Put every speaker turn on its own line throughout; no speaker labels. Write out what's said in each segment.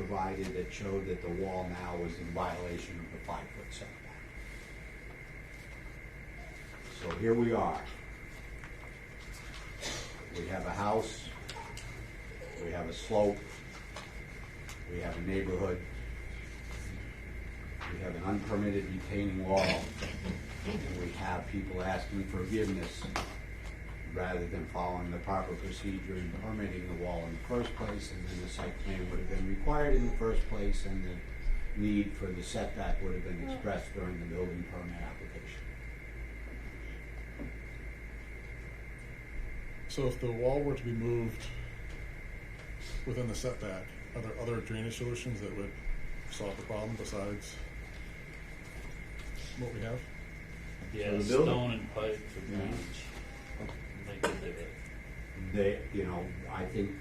provided that showed that the wall now was in violation of the five-foot setback. So here we are. We have a house, we have a slope, we have a neighborhood, we have an unpermitted retaining wall, and we have people asking forgiveness rather than following the proper procedure in permitting the wall in the first place, and then the site plan would have been required in the first place, and the need for the setback would have been expressed during the building permit application.
So if the wall were to be moved within the setback, are there other drainage solutions that would solve the problem besides what we have?
For
Yeah,
the building?
stone and pipe for
Yeah.
drainage. They could do it.
They, you know, I think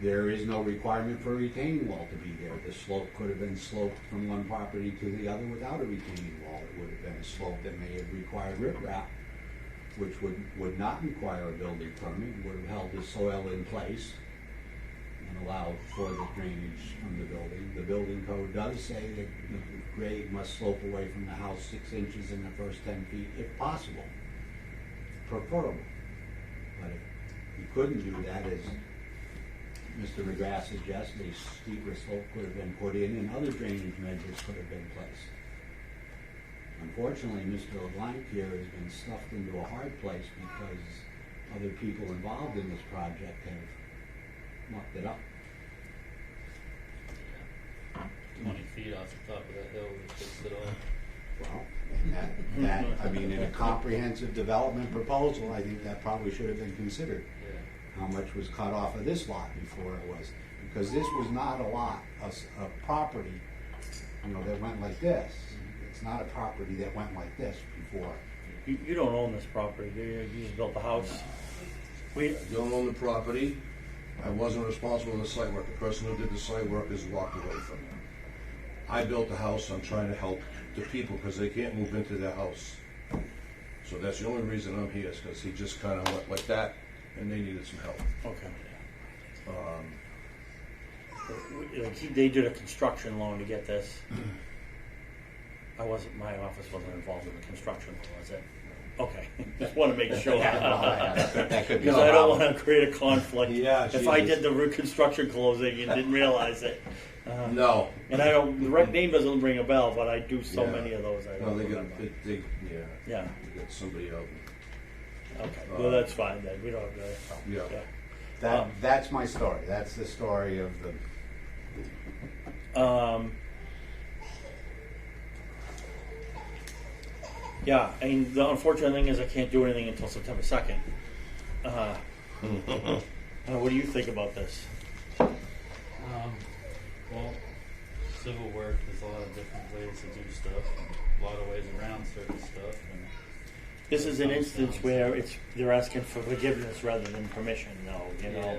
there is no requirement for a retaining wall to be there. The slope could have been sloped from one property to the other without a retaining wall. It would have been a slope that may have required riprap, which would, would not require a building permit, would have held the soil in place and allowed for the drainage from the building. The building code does say that the grade must slope away from the house six inches in the first ten feet if possible, preferable. But if you couldn't do that, as Mr. McGrath suggests, a steeper slope could have been put in and other drainage measures could have been placed. Unfortunately, Mr. LeBlanc here has been stuffed into a hard place because other people involved in this project have mucked it up.
Twenty feet off the top of that hill would fix it all.
Well, and that, that, I mean, in a comprehensive development proposal, I think that probably should have been considered.
Yeah.
how much was cut off of this lot before it was, because this was not a lot, a, s- a property, you know, that went like this. It's not a property that went like this before.
You, you don't own this property, do you? You just built the house. We,
Don't own the property. I wasn't responsible for the site work. The person who did the site work has walked away from it. I built the house. I'm trying to help the people because they can't move into their house. So that's the only reason I'm here is because he just kind of went like that and they needed some help.
okay. We- Like, he- they did a construction loan to get this.
Mm-hmm.
I wasn't, my office wasn't involved in the construction loan, was it? Okay, just want to make sure.
That could be a
Because I don't
problem.
want to create a conflict.
Yeah,
If I
Jesus.
did the reconstruction closing and didn't realize it. Uh,
No.
And I don't, the right name doesn't ring a bell, but I do so
Yeah.
many of those, I
No,
don't
they got,
remember.
they, they, yeah,
Yeah,
they got somebody out.
okay,
Uh,
well, that's fine then, we don't have that.
Yeah.
That, that's my story. That's the story of the,
Um, yeah, and the unfortunate thing is I can't do anything until September second. Uh, uh, what do you think about this?
Um, well, civil work, there's a lot of different ways to do stuff, and a lot of ways around certain stuff, and
This is an instance where it's they're asking for forgiveness rather than permission, though. You
yeah.
know,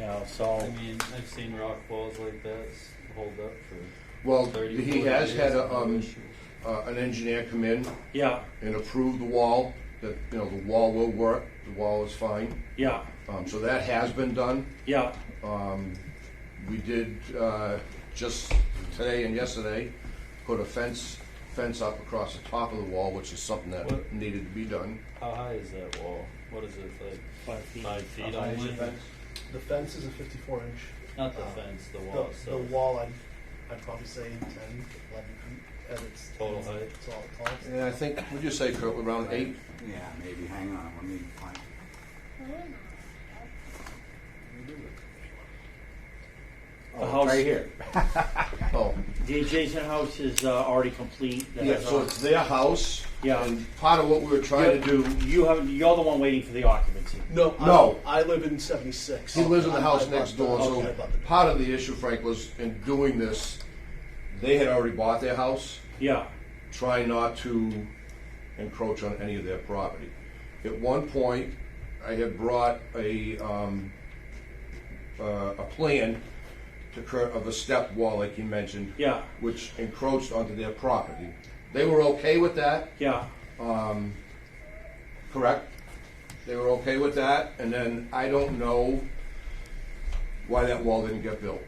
you know. So
I mean, I've seen rock walls like that s- hold up for
Well,
thirty.
he
40
has had
years,
a,
no
um,
issue.
uh, an engineer come in
yeah,
and approve the wall, that, you know, the wall will work, the wall is fine.
yeah,
Um, so that has been done.
yeah,
Um, we did, uh, just today and yesterday, put a fence, fence up across the top of the wall, which is something that
What?
needed to be done.
How high is that wall? What is it, like
five feet.
five feet
high is
only?
the fence? The fence is a 54 inch.
Not the
Uh,
Um,
fence, the
The,
wall
the
itself.
wall, I'd, I'd probably say 10, 11 feet at its
Total height.
It's all tall.
And I think, would you say, Kurt, around eight?
yeah, maybe, hang on, let me find.
The
Oh,
house-
it's right here.
Oh,
The adjacent house is uh, already complete. That
yeah,
has
so
all-
it's their house.
Yeah.
And part of what we were trying to do,
you have you're the one waiting for the occupancy.
No, I-
No.
I live in 76.
he lives in the
I- I
house
bought
next
the-
door,
okay, I
so
bought the-
part of the issue, Frank, was in doing this, they had already bought their house.
Yeah,
try not to encroach on any of their property. At one point, I had brought a, um, uh, a plan to cur, of a step wall, like you mentioned.
Yeah.
Which encroached onto their property. They were okay with that,
yeah.
correct? They were okay with that, and then I don't know why that wall didn't get built.